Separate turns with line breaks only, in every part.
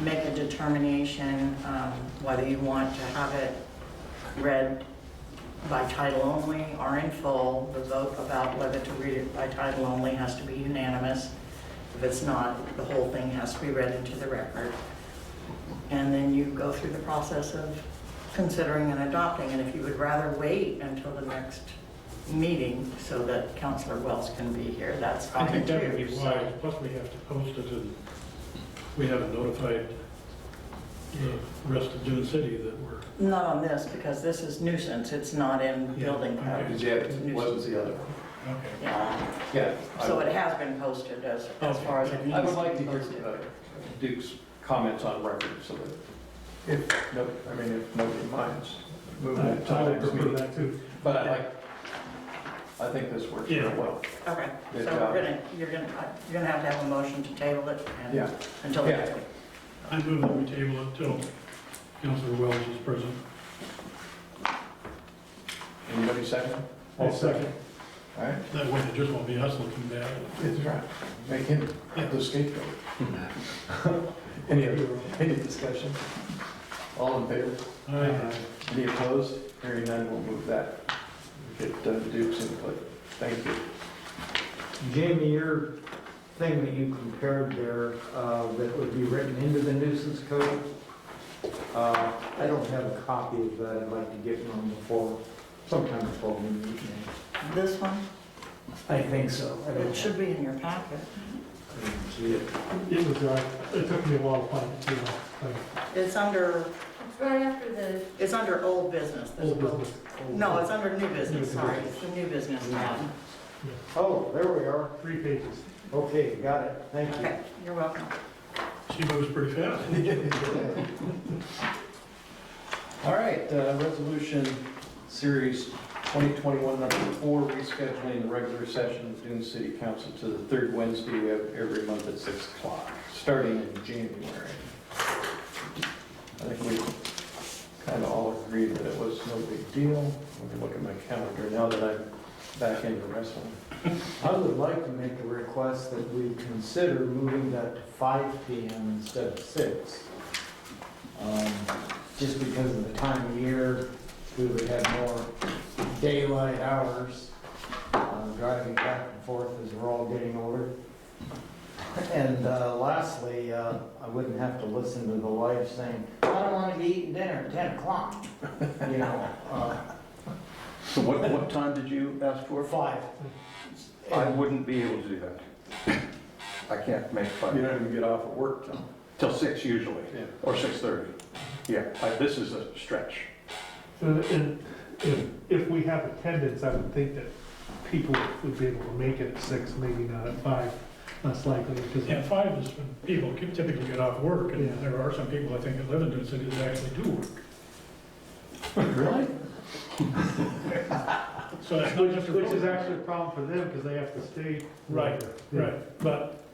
make a determination um, whether you want to have it read by title only or in full. The vote about whether to read it by title only has to be unanimous. If it's not, the whole thing has to be read into the record. And then you go through the process of considering and adopting. And if you would rather wait until the next meeting so that Counselor Wells can be here, that's
I
fine too.
think that would be
So-
wise, plus we have to post it and we haven't notified the rest of Dune City that we're,
Not on this, because this is nuisance, it's not in
Yeah,
building
okay.
code.
Because it wasn't the other. one.
okay.
Yeah,
Yeah. I-
so it has been posted as, as far as. it
Okay.
I would like to hear
needs be
uh, Duke's comments on record, so that if, no, I mean, if nobody minds moving it to
I
the
would
next
prefer
meeting.
that too.
But I like, I think this works
Yeah.
very well.
posted. Okay,
Good
so
job.
we're gonna, you're gonna, uh, you're gonna have to have a motion to table it
Yeah.
and, until
Yeah.
next week.
I move that we table it till Councilor Wells is present.
Anybody second?
I'll second.
All right,
That way it just won't be us looking bad.
it's right. Make him
Yeah.
the scapegoat. Any, other- any discussion? All in favor?
Aye.
Any opposed? Hearing none, we'll move that. Get uh, Duke's input. Thank you.
Jamie, your thing that you compared there, uh, that would be written into the nuisance code, uh, I don't have a copy of that, I'd like to get one before, sometime before we meet. now.
This one,
I think so. I don't-
it should be in your packet.
I didn't see it.
It was, uh, it took me a while to find, it, you know, like,
It's under,
It's right after the,
it's under old business. There's a
old
little-
business.
No, it's under new business,
business.
sorry, it's the new business tab.
Oh, there we are,
Three pages.
okay, got it, thank you.
Okay, you're welcome.
She moves pretty fast.
All right, uh, resolution series 2021 number four, rescheduling the regular session of Dune City Council to the third Wednesday of every month at 6 o'clock, starting in January. I think we kind of all agreed that it was no big deal. Let me look at my calendar now that I'm back into wrestling.
I would like to make a request that we consider moving that to five PM instead of six. Um, Just because of the time of year, we would have more daylight hours, uh, driving back and forth as we're all getting older. And uh, lastly, uh, I wouldn't have to listen to the wife saying, I don't want to be eating dinner at ten o'clock, you know, uh,
So what, what time did you ask
or
for?
five.
I wouldn't be able to do that. I can't make
You
five,
don't even get off at work till,
till six usually,
yeah.
or 6:30. Yeah, I- this is a stretch.
So, And if, if we have attendance, I would think that people would be able to make it at six, maybe not at five, less likely,
Yeah,
because,
five is when people can typically get off work,
Yeah.
and there are some people, I think, that live in Dune City that actually do work.
Really?
So it's not just a.
which is actually a problem for them, because they have to stay.
Right,
Yeah.
Right, but,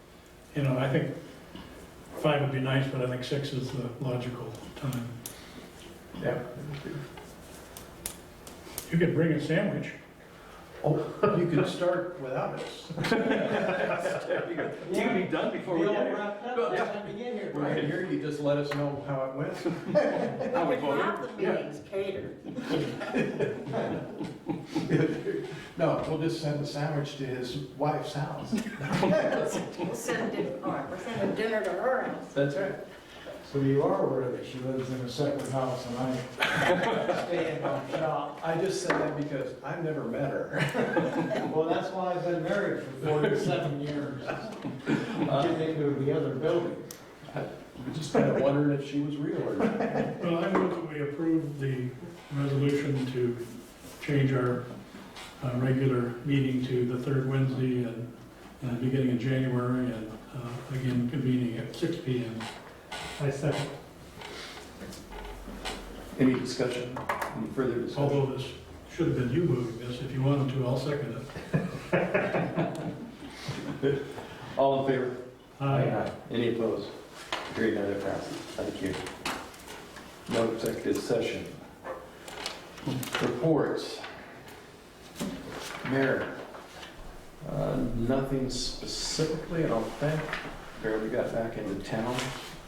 you know, I think five would be nice, but I think six is the logical time.
Yeah.
You could bring a sandwich.
You can start without us.
You can be done before we get here.
Right here, you just let us know how it went.
How we
We could
voted.
have the meetings catered.
No, we'll just send a sandwich to his wife's house.
We'll send it, all right, we're sending dinner to her house.
That's right.
So you are aware that she lives in a separate house and I stay in my shop.
I just said that because I've never met her.
Well, that's why I've been married for forty-seven years. Get into the other building.
Just kind of wondering if she was real or not.
Well, I move that we approve the resolution to change our uh, regular meeting to the third Wednesday and, uh beginning of January, and uh, again convening at six P M.
I second,
Any discussion, any further discussion?
Although this should have been you moving this, if you wanted to, I'll second it.
All in favor?
Aye.
Any opposed? Hearing none, it passes. Thank you. No executive session. Reports. Mayor, uh, nothing specifically, I don't think. Barely got back into town.